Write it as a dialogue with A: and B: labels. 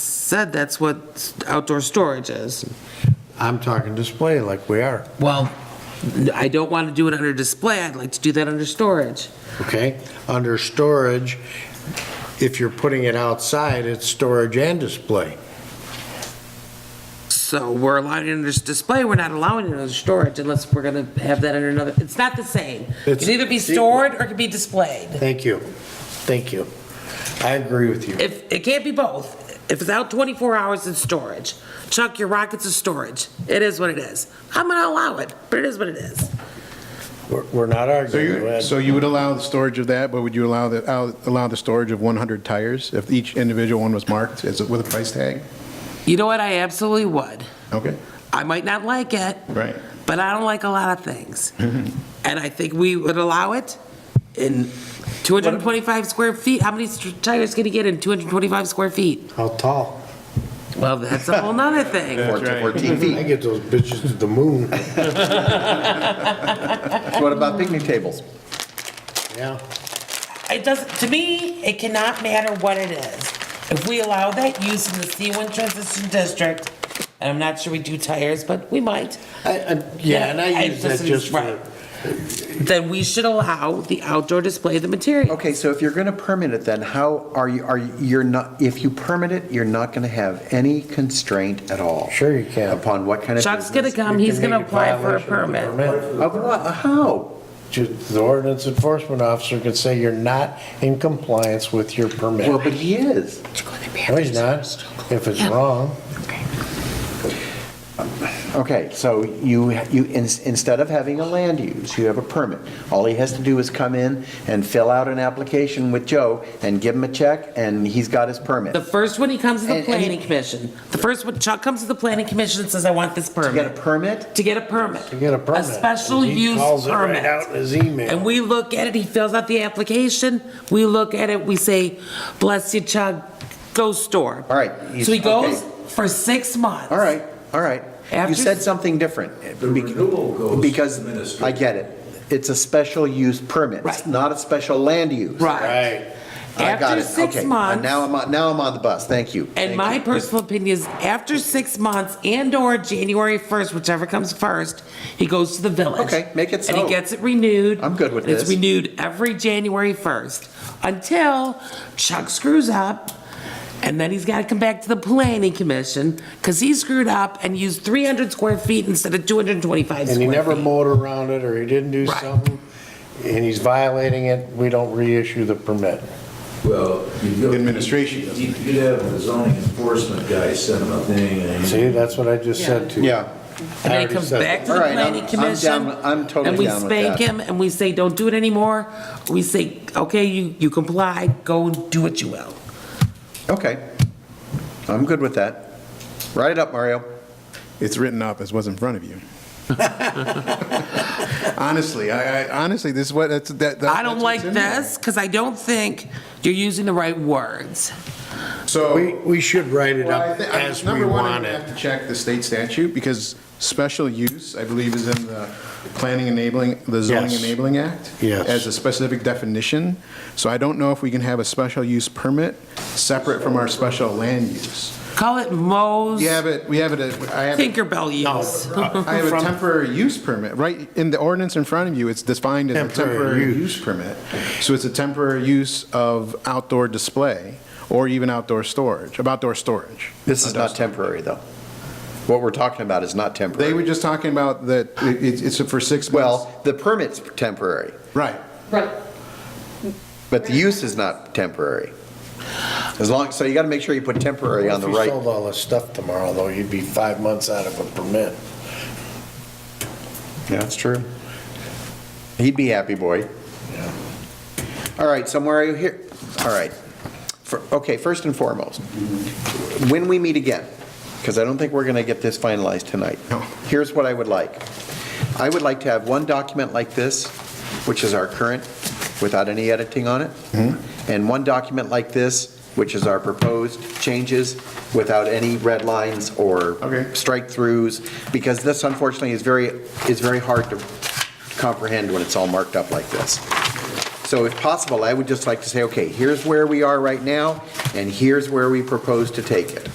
A: said that's what outdoor storage is.
B: I'm talking display like we are,
A: Well, I don't want to do it under display, I'd like to do that under storage.
B: okay? Under storage, if you're putting it outside, it's storage and display.
A: So we're allowing it under s- display, we're not allowing it under storage unless we're going to have that under another, it's not the same. It
B: It's-
A: can either be stored or it can be displayed.
B: Thank you. Thank you. I agree with you.
A: If, it can't be both. If it's out 24 hours, it's storage. Chuck, your rockets is storage. It is what it is. I'm going to allow it, but it is what it is.
B: We're we're not
C: So
B: arguing.
C: you,
B: Ed.
C: so you would allow the storage of that, but would you allow the, al- allow the storage of 100 tires if each individual one was marked as, with a price tag?
A: You know what, I absolutely would.
C: Okay,
A: I might not like it,
C: right.
A: but I don't like a lot of things. And I think we would allow it in 225 square feet. How many st- tires can you get in 225 square feet?
B: How tall?
A: Well, that's a whole nother thing.
C: right.
D: 14
B: I
D: feet.
B: get those bitches to the moon.
D: What about picnic tables?
B: Yeah.
A: It does, to me, it cannot matter what it is. If we allow that use in the C1 transition district, and I'm not sure we do tires, but we might,
B: I- I- Yeah, and I use that just for,
A: Right. then we should allow the outdoor display of the material.
D: Okay, so if you're going to permit it, then how are you, are you, you're not, if you permit it, you're not going to have any constraint at all?
B: Sure you can.
D: Upon what kind of
A: Chuck's gonna
D: business?
A: come,
B: You
A: he's
B: can
A: gonna
B: make a
A: apply for a
B: violation of the
A: permit.
D: Of what, how?
B: Just The ordinance enforcement officer could say you're not in compliance with your permit.
D: Well, but he is.
B: No, he's not, if it's wrong.
D: Okay, so you, you, in- instead of having a land use, you have a permit. All he has to do is come in and fill out an application with Joe and give him a check, and he's got his permit.
A: The first one, he comes to the
D: And- and he-
A: planning commission. The first one, Chuck comes to the planning commission and says, I want this
D: You got a
A: permit.
D: permit?
A: To get a permit.
B: You get a permit.
A: A special
B: He
A: use
B: calls it right out in
A: permit.
B: his email.
A: And we look at it, he fills out the application, we look at it, we say, bless you, Chuck, go store.
D: All right, he's-
A: So he goes
D: okay.
A: for six months.
D: All right, all right.
A: After-
D: You said something different. Bec-
E: renewal goes to
D: Because,
E: administrative.
D: I get it. It's a special use permit. It's
A: Right.
D: not a special land use.
A: Right.
B: Right.
D: I got
A: After
D: it.
A: six
D: Okay.
A: months.
D: Now I'm, on- now I'm on the bus. Thank you.
A: And
D: Thank
A: my
D: you.
A: personal opinion is after six months and/or January 1st, whichever comes first, he goes to the village.
D: Okay, make it
A: And he
D: so.
A: gets it renewed.
D: I'm good with
A: And It's
D: this.
A: renewed every January 1st until Chuck screws up. And then he's got to come back to the planning commission because he screwed up and used 300 square feet instead of 225
B: And he
A: square
B: never
A: feet.
B: mowed around it, or he didn't do
A: Right.
B: something, and he's violating it, we don't reissue the permit.
E: Well, you go.
C: Administration doesn't.
E: You could have the zoning enforcement guy send him a thing and.
B: See, that's what I just said to you.
D: Yeah.
A: And then he
B: already
A: comes
B: said
A: back
B: that.
A: to the
D: All right, I'm-
A: planning
D: I'm
A: commission.
D: down- I'm totally down
A: And
D: with
A: we
D: that.
A: spank him and we say, don't do it anymore. We say, okay, you, you comply, go and do what you will.
D: Okay. I'm good with that. Write it up, Mario.
C: It's written up as what's in front of you. Honestly, I, I, honestly, this is what, that's, that. that-
A: I don't
C: that's
A: like
C: what's in there.
A: this because I don't think you're using the right words.
C: So.
B: We, we should write it
C: Well, I
B: up
C: thi- I-
B: as we
C: Number one, I'm
B: want
C: gonna have
B: it.
C: to check the state statute, because special use, I believe, is in the Planning Enabling, the Zoning
B: Yes.
C: Enabling Act.
B: Yes.
C: As a specific definition, so I don't know if we can have a special use permit separate from our special land use.
A: Call it Mo's
C: We have it, we have it, uh, I have, it-
A: Tinkerbell use.
C: I have a temporary use permit, right, in the ordinance in front of you, it's defined as a
B: Temporary
C: temporary
B: use.
C: use permit. So it's a temporary use of outdoor display, or even outdoor storage, of outdoor storage.
D: This is not temporary, though. What we're talking about is not
C: They
D: temporary.
C: were just talking about that it- it's it's for six months.
D: Well, the permit's temporary,
C: Right.
D: but the use is not temporary. As long, so you got to make sure you put temporary on
B: If
D: the
B: you
D: right.
B: sold all this stuff tomorrow, though, you'd be five months out of a permit.
D: Yeah, that's true. He'd be happy boy. All right, so Mario, here, all right. For- Okay, first and foremost, when we meet again, because I don't think we're going to get this finalized tonight.
C: No.
D: Here's what I would like. I would like to have one document like this, which is our current, without any editing on it, and one document like this, which is our proposed changes, without any red lines or
C: Okay.
D: strike-throughs, because this unfortunately is very, is very hard to comprehend when it's all marked up like this. So if possible, I would just like to say, okay, here's where we are right now, and here's where we propose to take it.